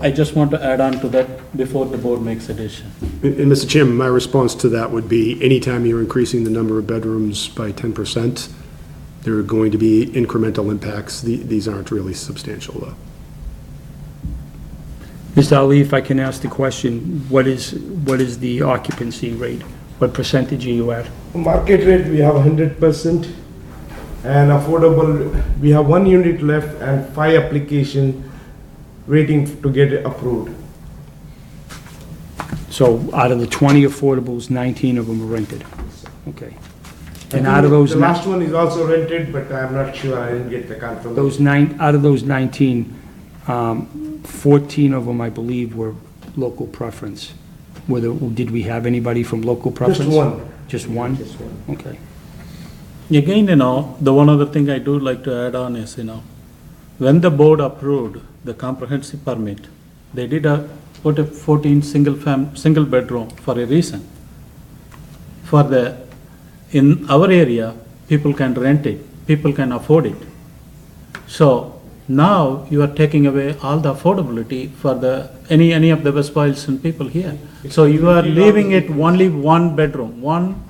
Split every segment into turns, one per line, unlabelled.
I just want to add on to that before the board makes a decision.
And, and Mr. Chairman, my response to that would be, anytime you're increasing the number of bedrooms by ten percent, there are going to be incremental impacts. The- These aren't really substantial, though.
Mr. Ali, if I can ask the question, what is, what is the occupancy rate? What percentage are you at?
Market rate, we have hundred percent. And affordable, we have one unit left and five application waiting to get approved.
So out of the 20 affordables, 19 of them are rented. Okay. And out of those,
The
ni-
last one is also rented, but I'm not sure, I didn't get the confirmation.
those nine, out of those 19, um, 14 of them, I believe, were local preference. Whether, did we have anybody from local preference?
Just one.
Just one?
Just one.
Okay.
Again, you know, the one other thing I do like to add on is, you know, when the board approved the comprehensive permit, they did a, put a fourteen single fam, single bedroom for a reason. For the, in our area, people can rent it, people can afford it. So now you are taking away all the affordability for the, any, any of the West Boylston people here. So you are leaving it only one bedroom, one,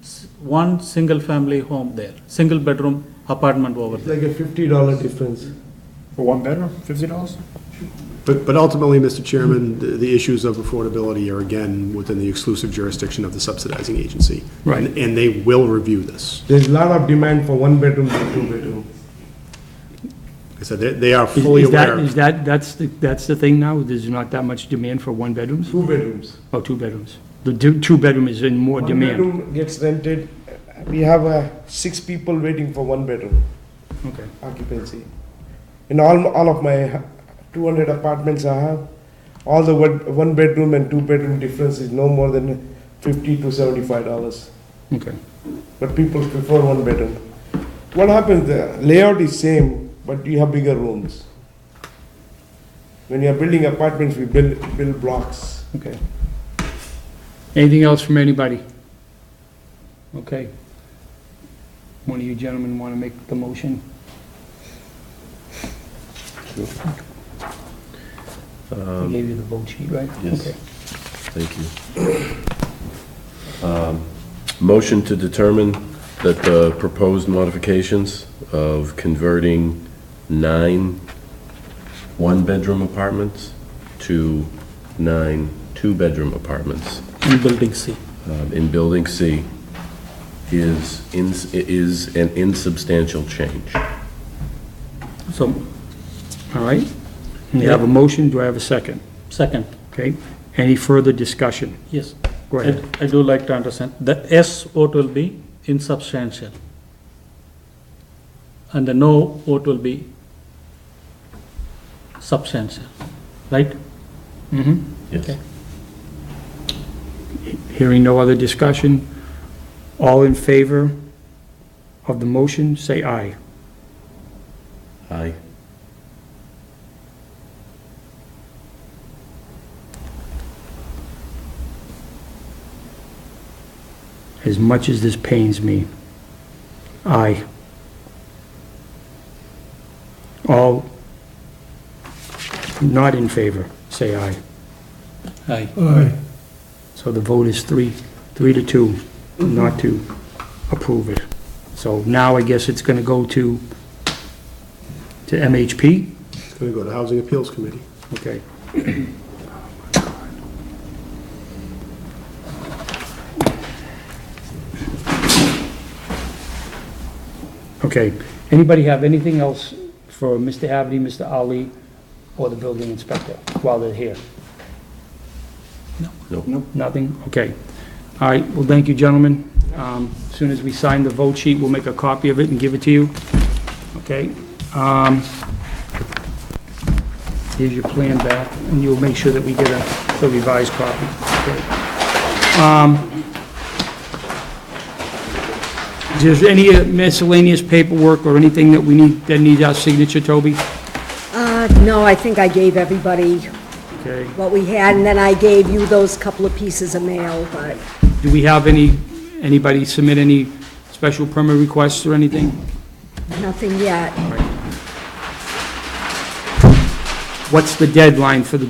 s- one single-family home there, single-bedroom apartment over
It's
there.
like a fifty dollar difference.
For one bedroom, fifty dollars?
But, but ultimately, Mr. Chairman, the, the issues of affordability are again within the exclusive jurisdiction of the subsidizing agency.
Right.
And- And they will review this.
There's a lot of demand for one bedroom to two bedroom.
Like I said, they, they are
Is-
fully
is that-
aware.
Is that, that's, the- that's the thing now? There's not that much demand for one bedrooms?
Two bedrooms.
Oh, two bedrooms. The du- two bedroom is in more
One
demand.
bedroom gets rented, we have uh, six people waiting for one bedroom
Okay.
occupancy. In all, all of my two hundred apartments I have, all the one, one bedroom and two bedroom difference is no more than fifty to seventy-five dollars.
Okay.
But people prefer one bedroom. What happens, the layout is same, but you have bigger rooms. When you are building apartments, we build, build blocks.
Okay. Anything else from anybody? Okay. One of you gentlemen want to make the motion? I gave you the vote sheet, right?
yes.
Okay.
Thank you. Um, Motion to determine that the proposed modifications of converting nine one-bedroom apartments to nine two-bedroom apartments
In Building C.
um, in Building C is, ins- is an insubstantial change.
So, all right. You have a motion, do I have a second?
Second,
Okay. Any further discussion?
yes.
Go
I
ahead.
I do like to understand, the S vote will be insubstantial. And the no vote will be substantial, right?
Yes.
Hearing no other discussion, all in favor of the motion, say aye.
Aye.
As much as this pains me, aye. All not in favor, say aye.
Aye.
So the vote is three, three to two, not to approve it. So now I guess it's going to go to, to MHP?
It's going to go to Housing Appeals Committee.
Okay. Okay, anybody have anything else for Mr. Haverty, Mr. Ali, or the building inspector while they're here?
No.
Nothing? Okay. All right, well, thank you, gentlemen. Um, As Soon as we sign the vote sheet, we'll make a copy of it and give it to you. Okay? Um, Here's your plan back, and you'll make sure that we get a the revised copy. Okay. Um, Is there any miscellaneous paperwork or anything that we need, that needs our signature, Toby?
Uh, no, I think I gave everybody
Okay.
what we had, and then I gave you those couple of pieces of mail, but
Do we have any, anybody submit any special permit requests or anything?
nothing yet.
What's the deadline for the